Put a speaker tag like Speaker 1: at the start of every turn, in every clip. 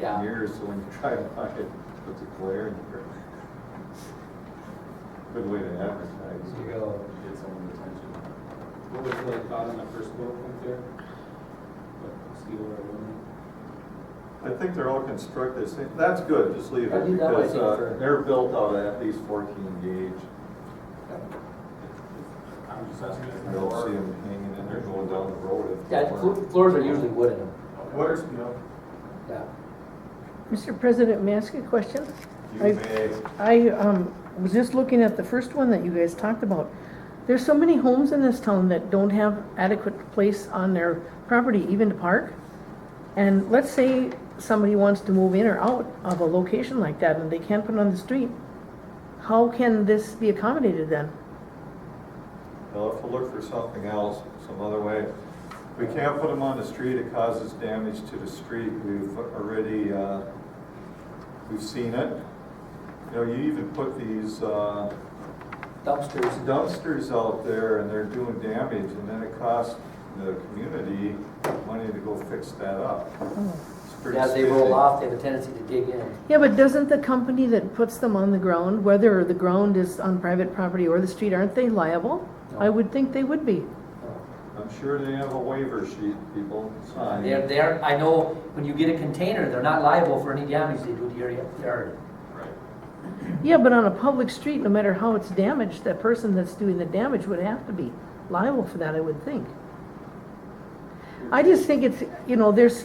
Speaker 1: Yeah.
Speaker 2: mirrors, so when you drive by, it puts a glare in your. Good way to advertise.
Speaker 3: You go,
Speaker 2: Get someone's attention.
Speaker 3: what was the thought on that first bullet point there? What, steel or aluminum?
Speaker 2: I think they're all constructed, same- that's good, just leave
Speaker 1: I
Speaker 2: it,
Speaker 1: think that was
Speaker 2: because
Speaker 1: it
Speaker 2: uh,
Speaker 1: for-
Speaker 2: they're built out of at least fourteen gauge.
Speaker 3: I'm just asking.
Speaker 2: You don't see them hanging in there going down the road. if-
Speaker 1: Yeah, flo- floors are usually wood in them,
Speaker 2: What,
Speaker 1: yeah.
Speaker 4: Mr. President, may I ask you a question?
Speaker 2: you
Speaker 4: I-
Speaker 2: may,
Speaker 4: I um, was just looking at the first one that you guys talked about. There's so many homes in this town that don't have adequate place on their property even to park. And let's say somebody wants to move in or out of a location like that and they can't put it on the street. How can this be accommodated then?
Speaker 2: they'll have to look for something else, some other way. We can't put them on the street, it causes damage to the street, we've already, uh, we've seen it. You know, you even put these, uh,
Speaker 1: Dumpsters,
Speaker 2: dumpsters out there and they're doing damage and then it costs the community money to go fix that up. It's pretty
Speaker 1: as they roll
Speaker 2: spiffy.
Speaker 1: off, they have a tendency to dig in.
Speaker 4: Yeah, but doesn't the company that puts them on the ground, whether the ground is on private property or the street, aren't they liable? I
Speaker 1: No.
Speaker 4: would think they would be.
Speaker 2: I'm sure they have a waiver sheet, people sign.
Speaker 1: They're, they're, I know, when you get a container, they're not liable for any damage they do to your yard.
Speaker 4: Yeah, but on a public street, no matter how it's damaged, that person that's doing the damage would have to be liable for that, I would think. I just think it's, you know, there's,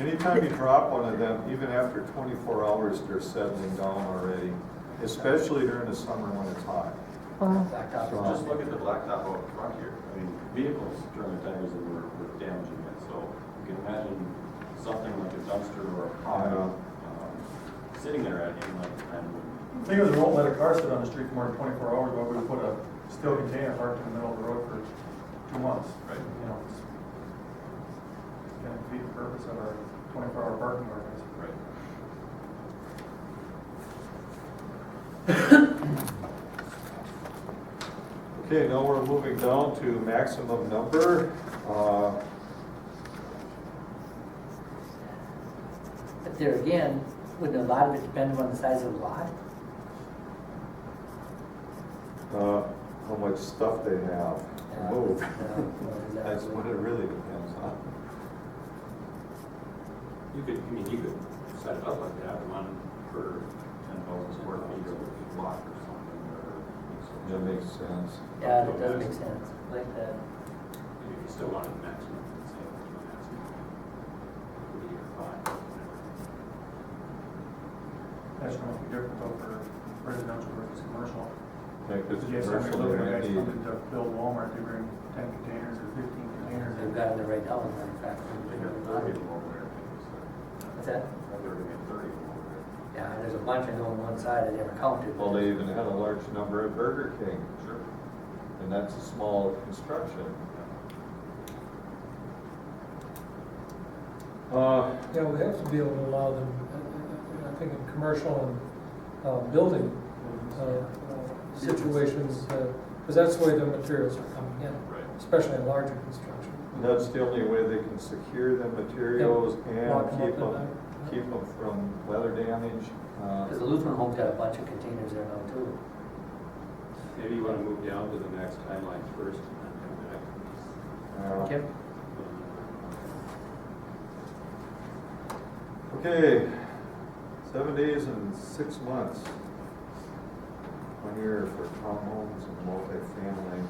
Speaker 2: Anytime you drop one of them, even after twenty-four hours, they're settling down already, especially during the summer when it's hot.
Speaker 4: uh,
Speaker 1: Blacktop.
Speaker 5: Just look at the blacktop out front here. I mean, vehicles during the tires that were, were damaging it, so you can imagine something like a dumpster or a
Speaker 2: Yeah.
Speaker 5: pile, um, sitting there at any like time.
Speaker 6: I think it was, won't let a car sit on the street for more than twenty-four hours, but we put a steel container parked in the middle of the road for two months.
Speaker 5: Right.
Speaker 6: You know, it's gonna defeat the purpose of our twenty-four hour parking ordinance.
Speaker 5: Right.
Speaker 2: Okay, now we're moving down to maximum number. Uh,
Speaker 1: But there again, wouldn't a lot of it depend on the size of the lot?
Speaker 2: uh, how much stuff they have to move.
Speaker 1: Yeah,
Speaker 2: Oh. That's what it
Speaker 1: exactly.
Speaker 2: really depends on.
Speaker 5: You could, I mean, you could set it up like that, one for ten thousand square feet or a block or something, or.
Speaker 2: That makes sense.
Speaker 1: Yeah, that does make sense, like that.
Speaker 5: If you still wanted maximum, say, you want maximum. Would be your five.
Speaker 6: That's going to be different though for residential versus commercial.
Speaker 2: Like this
Speaker 6: Because you have somebody
Speaker 2: commercial, they
Speaker 6: looking
Speaker 2: might
Speaker 6: at
Speaker 2: need-
Speaker 6: something to build Walmart, they bring ten containers or fifteen containers.
Speaker 1: They've got it there right now, in fact.
Speaker 5: Thirty or more, so.
Speaker 1: What's that?
Speaker 5: They're gonna get thirty or more.
Speaker 1: Yeah, there's a bunch I know on one side I never counted.
Speaker 2: Well, they even had a large number at Burger King,
Speaker 5: Sure.
Speaker 2: and that's a small construction. Uh,
Speaker 7: Yeah, we have to be able to allow them, uh, I- I I think in commercial and uh, building uh, uh, situations, because that's the way the materials are coming
Speaker 5: Right.
Speaker 7: in, especially in larger construction.
Speaker 2: that's the only way they can secure the materials and
Speaker 7: Lock 'em up
Speaker 2: keep
Speaker 7: at
Speaker 2: them,
Speaker 7: night.
Speaker 2: keep 'em from weather damage. Uh,
Speaker 1: Because the Lutheran home's got a bunch of containers there now too.
Speaker 5: Maybe you wanna move down to the next timeline first and then come back.
Speaker 2: uh,
Speaker 1: Kim?
Speaker 2: Okay, seven days and six months. One year for townhomes and multifamily.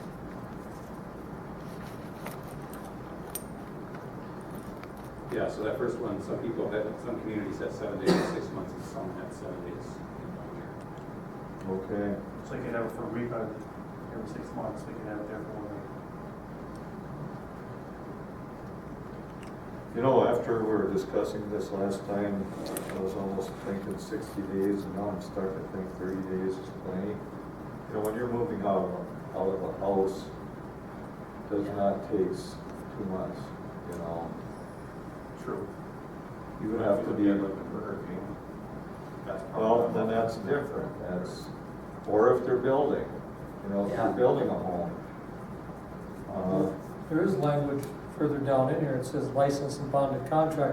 Speaker 5: Yeah, so that first one, some people had, some communities had seven days, to six months, and some had seven days. in one year.
Speaker 2: Okay,
Speaker 6: So you could have it for a week, uh, every six months, we could have it there for one week.
Speaker 2: you know, after we were discussing this last time, I was almost thinking sixty days, and now I'm starting to think thirty days is plenty. You know, when you're moving out of, out of a house, does not takes two months, you know?
Speaker 5: True.
Speaker 2: You would have to be.
Speaker 5: Like the Burger King. That's
Speaker 2: Well, then
Speaker 5: probably-
Speaker 2: that's different, that's, or if they're building, you know, if
Speaker 1: Yeah.
Speaker 2: they're building a home. Uh,
Speaker 7: There is language further down in here, it says licensed and bonded contractor